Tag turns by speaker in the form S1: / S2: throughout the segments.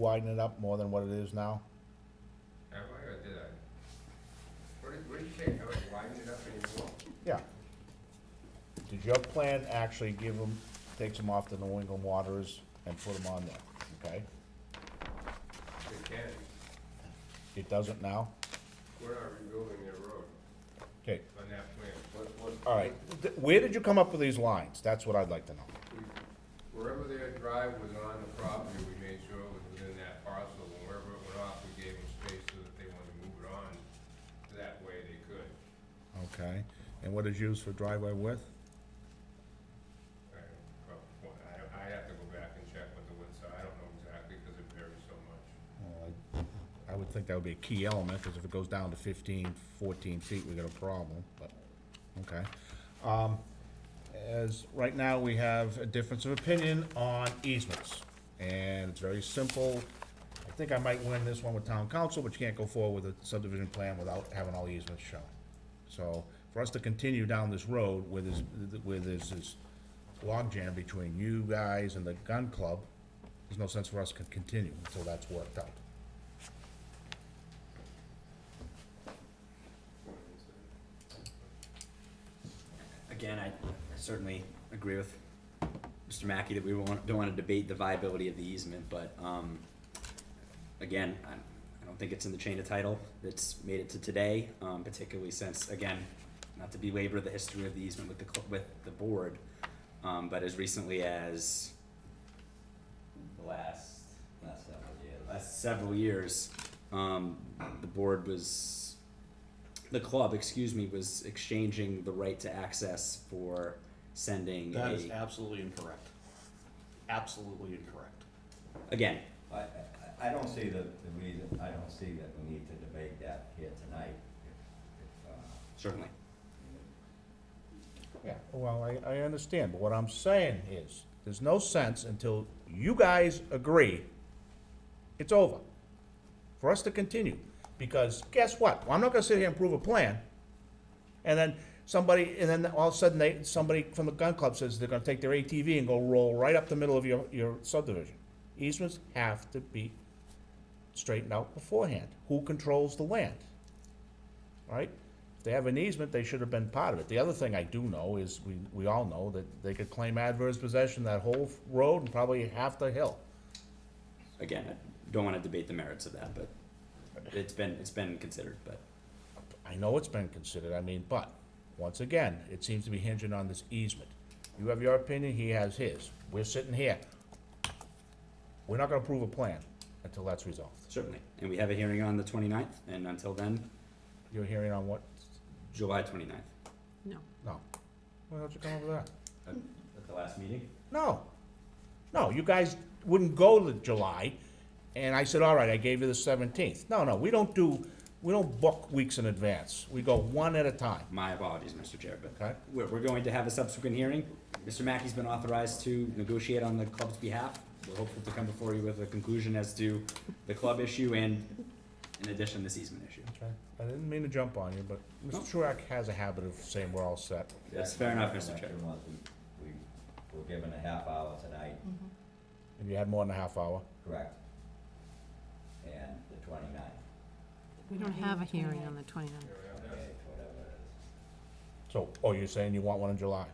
S1: widen it up more than what it is now?
S2: Have I or did I? What did, what did you say, have I widened it up anymore?
S1: Yeah. Did your plan actually give them, takes them off the New England waters and put them on there, okay?
S2: We can,
S1: It doesn't now?
S2: we're not rebuilding their road
S1: Okay,
S2: on that plan. What, what?
S1: all right. Th- Where did you come up with these lines? That's what I'd like to know.
S2: we- Wherever their drive was on the property, we made sure it was within that parcel, and wherever it went off, we gave them space so that they wanted to move it on, that way they could.
S1: Okay, and what is used for driveway width?
S2: I don't prob- well, I- I'd have to go back and check what the widths are, I don't know exactly, because it varies so much.
S1: Well, I- I would think that would be a key element, because if it goes down to 15, 14 feet, we got a problem, but, okay. Um, As, right now, we have a difference of opinion on easements, and it's very simple. I think I might win this one with town council, but you can't go forward with a subdivision plan without having all the easements shown. So, for us to continue down this road where there's, where there's this logjam between you guys and the gun club, there's no sense for us to continue until that's worked out.
S3: Again, I certainly agree with Mr. Mackey that we won't- don't want to debate the viability of the easement, but um, again, I I don't think it's in the chain of title that's made it to today, um, particularly since, again, not to belabor the history of the easement with the, cl- with the board, um, but as recently as the last, last several years, last several years, um, the board was the club, excuse me, was exchanging the right to access for sending
S4: That is
S3: a-
S4: absolutely incorrect. Absolutely incorrect.
S3: again.
S5: I, I, I don't see the, the reason, I don't see that we need to debate that here tonight. If- if, uh,
S3: Certainly.
S1: Yeah, well, I, I understand, but what I'm saying is, there's no sense until you guys agree, it's over. For us to continue, because guess what? Well, I'm not gonna sit here and prove a plan, and then somebody, and then all of a sudden, they, somebody from the gun club says they're gonna take their ATV and go roll right up the middle of your, your subdivision. Easements have to be straightened out beforehand. Who controls the land? right? If they have an easement, they should have been part of it. The other thing I do know is, we, we all know that they could claim adverse possession of that whole road and probably half the hill.
S3: Again, I don't want to debate the merits of that, but it's been, it's been considered, but
S1: I know it's been considered, I mean, but, once again, it seems to be hinging on this easement. You have your opinion, he has his. We're sitting here. We're not gonna approve a plan until that's resolved.
S3: certainly. And we have a hearing on the 29th, and until then,
S1: You're hearing on what?
S3: July 29th.
S6: No.
S1: No. Why don't you come over that?
S3: At at the last meeting?
S1: No. No, you guys wouldn't go to July, and I said, all right, I gave you the seventeenth. No, no, we don't do, we don't book weeks in advance. We go one at a time.
S3: My apologies, Mr. Chair,
S1: Okay.
S3: but we're, we're going to have a subsequent hearing. Mr. Mackey's been authorized to negotiate on the club's behalf. We're hopeful to come before you with a conclusion as to the club issue and, in addition, this easement issue.
S1: Okay. I didn't mean to jump on you, but Mr. Truax has a habit of saying we're all set.
S3: That's fair enough, Mr. Chair.
S5: recollection was we, we were given a half hour tonight,
S1: Mm. And you had more than a half hour.
S5: correct? And the twenty-ninth,
S6: We don't have a hearing on the 29th.
S5: okay, whatever it
S1: So, oh, you're saying you want one in July?
S5: is.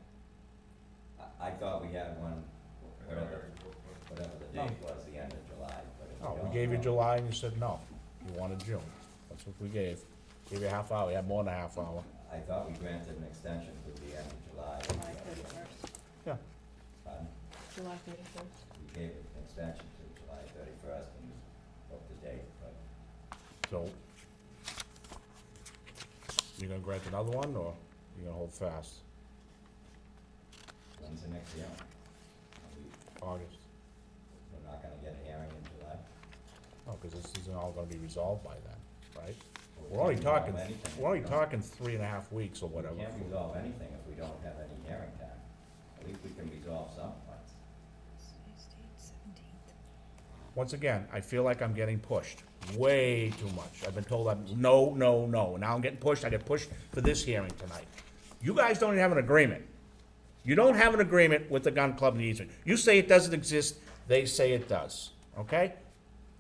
S5: I, I thought we had one,
S2: I don't
S5: whatever,
S2: know.
S5: whatever the date was, the end of July, but if we
S1: Oh,
S5: don't
S1: we gave you
S5: know-
S1: July and you said no. You wanted June. That's what we gave. Gave you a half hour. You had more than a half hour.
S5: I thought we granted an extension to the end of July.
S1: Yeah.
S5: Pardon?
S7: July thirty-first.
S5: We gave an extension to July thirty-first and booked the date, but
S1: So, you gonna grant another one, or you gonna hold fast?
S5: when's the next hearing? Are we-
S1: August?
S5: We're not gonna get a hearing in July.
S1: No, because this isn't all gonna be resolved by then, right? We're only talking, we're only talking three and a half weeks or whatever.
S5: We can't resolve anything if we don't have any hearing time. At least we can resolve some points.
S1: Once again, I feel like I'm getting pushed way too much. I've been told I'm, no, no, no. Now I'm getting pushed, I get pushed for this hearing tonight. You guys don't even have an agreement. You don't have an agreement with the gun club and the easement. You say it doesn't exist, they say it does, okay?